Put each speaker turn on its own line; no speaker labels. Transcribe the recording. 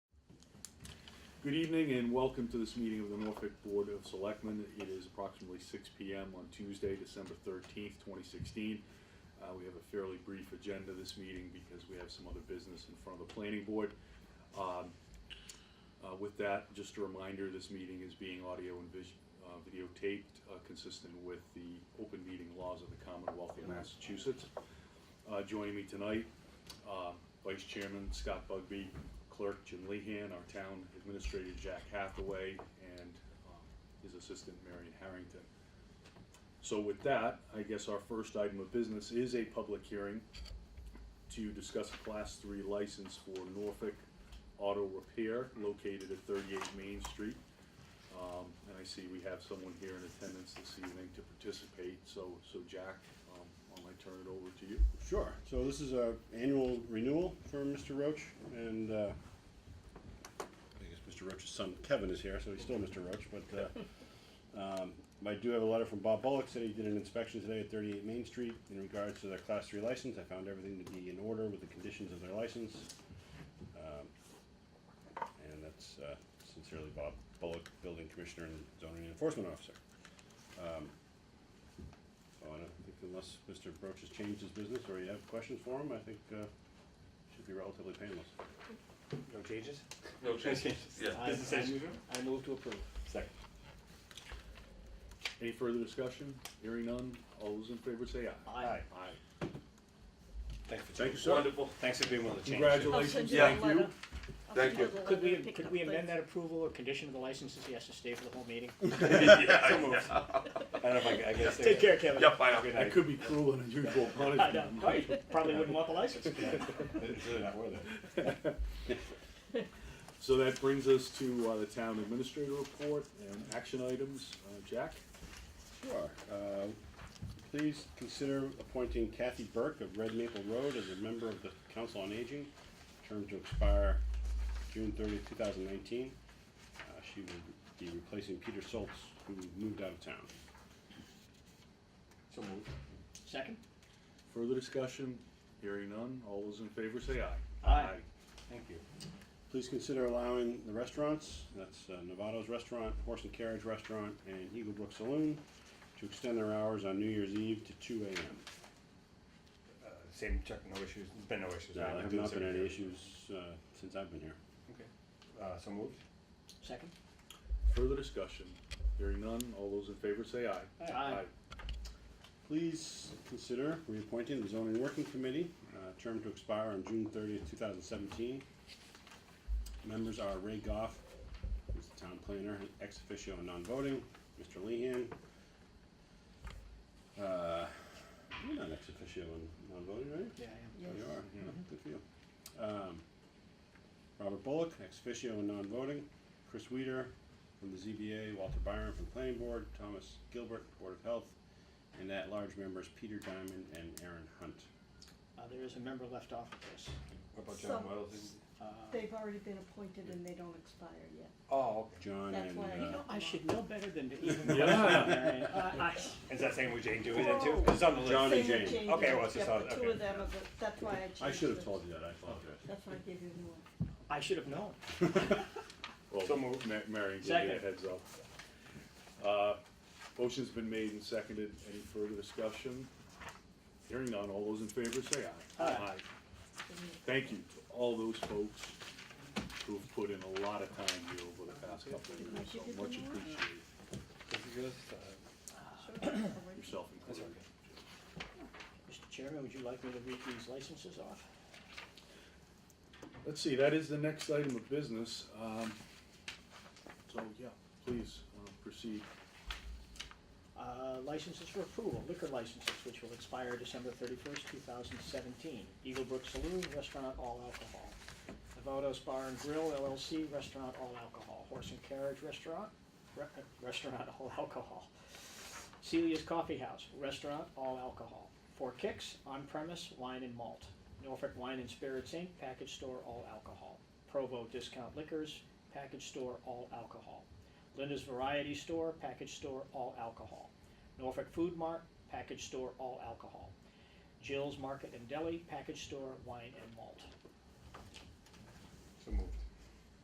Good evening and welcome to this meeting of the Norfolk Board of Selectmen. It is approximately six P M on Tuesday, December thirteenth, twenty sixteen. Uh, we have a fairly brief agenda this meeting because we have some other business in front of the planning board. Um, uh, with that, just a reminder, this meeting is being audio and vis- uh, videotaped, uh, consistent with the open meeting laws of the Commonwealth of Massachusetts. Uh, joining me tonight, uh, Vice Chairman Scott Bugby, Clerk Jim Lehan, our Town Administrator Jack Hathaway, and, um, his assistant Marion Harrington. So with that, I guess our first item of business is a public hearing to discuss a class three license for Norfolk Auto Repair located at thirty-eight Main Street. Um, and I see we have someone here in attendance this evening to participate, so, so Jack, um, I'll turn it over to you.
Sure. So this is a annual renewal for Mr. Roach, and uh, I guess Mr. Roach's son Kevin is here, so he's still Mr. Roach. But uh, um, I do have a letter from Bob Bullock said he did an inspection today at 38 Main Street in regards to their Class Three license. I found everything to be in order with the conditions of their license, um, and that's uh, sincerely Bob Bullock, Building Commissioner and Zoning Enforcement Officer. Um, so I don't think unless Mr. Broach has changed his business or you have questions for him, I think, uh, should be relatively painless.
No changes?
No changes. Yeah.
I-
Business
I-
as usual?
I move to approve.
Second.
Any further discussion? Hearing none, all those in favor say aye.
Aye.
Aye.
Thanks for
Thank you, sir.
Wonderful.
Thanks for being willing to change.
I'll send
Congratulations,
you that
thank
letter.
you.
I'll
Thank
send you
you.
the
Could we,
letter and pick
could
up
we
the-
amend that approval or condition of the licenses, he has to stay for the whole meeting?
Yeah,
So moved.
yeah.
I don't know if I, I guess.
stay
Take care, Kevin.
Yep, I know.
Good
That
night.
could be cruel and unusual
I know,
punishment.
right, probably wouldn't want the license.
It's really not worth it.
So that brings us to uh, the town administrator report and action items. Uh, Jack?
Sure. Uh, Please consider appointing Kathy Burke of Red Maple Road as a member of the Council on Aging, term to expire June thirtieth, two thousand nineteen. Uh, She will be replacing Peter Soltz, who moved out of town.
So moved. Second?
Further discussion? Hearing none, all those in favor say aye.
Aye.
Thank you.
Please consider allowing the restaurants, that's uh, Novato's Restaurant, Horse and Carriage Restaurant, and Eagle Brook Saloon, to extend their hours on New Year's Eve to two AM.
Uh, Same check, no issues, There's been no issues.
There
right?
have
Do
not
this
been any
every year.
issues uh, since I've been here.
Okay. Uh, so moved?
Second?
Further discussion? Hearing none, all those in favor say aye.
Aye.
Please consider reappointing the zoning working committee, uh, term to expire on June thirtieth, two thousand seventeen. Members are Ray Goff, who's the town planner, ex officio and non-voting, Mr. Lehan. Uh, you're not ex officio and non-voting, right?
Yeah, I
Oh, you are, yeah, good for you. Um, Robert Bullock, ex officio and non-voting, Chris Weider from the ZBA, Walter Byron from Planning Board, Thomas Gilbert, Board of Health, and at-large members Peter Diamond and Aaron Hunt.
am. Uh, there is a member left off of this.
What about
Some-
John Wells?
Uh,
They've already been appointed and they don't expire yet.
Oh, okay.
John
That's
and,
why I-
uh,
I should know better than to even.
Yeah.
Yeah.
Is that same with Jane doing that too?
Whoa.
'Cause it's on the
John and
list.
Same with
Jane.
Jane
Okay,
Doe.
well, it's just
Yep,
on-
the two
okay.
of them, are the- that's why I changed it.
I should have told you that, I apologize.
That's why I gave you a new one.
I should have known.
So
Well,
moved.
Ma- Marion gave you a
Second.
heads up. Uh, Motion's been made and seconded. Any further discussion? Hearing none, all those in favor say aye.
Aye.
Thank you to all those folks who've put in a lot of time here over the past couple of
Did I
years, so
give you the
much
wrong?
appreciated,
This is yours? Uh,
Sure, I'll wait.
yourself
That's
included.
okay.
Mr. Chairman, would you like me to read these licenses off?
Let's see, that is the next item of business. Um, So, yeah, please uh, proceed.
Uh, Licenses for approval, liquor licenses, which will expire December thirty-first, two thousand seventeen. Eagle Brook Saloon, restaurant, all alcohol. Novatos Bar and Grill LLC, restaurant, all alcohol. Horse and Carriage Restaurant, re- restaurant, all alcohol. Celia's Coffee House, restaurant, all alcohol. Four Kicks, on-premise, wine and malt. Norfolk Wine and Spirits Inc., package store, all alcohol. Provo Discount Liquors, package store, all alcohol. Linda's Variety Store, package store, all alcohol. Norfolk Food Mart, package store, all alcohol. Jill's Market and Deli, package store, wine and malt.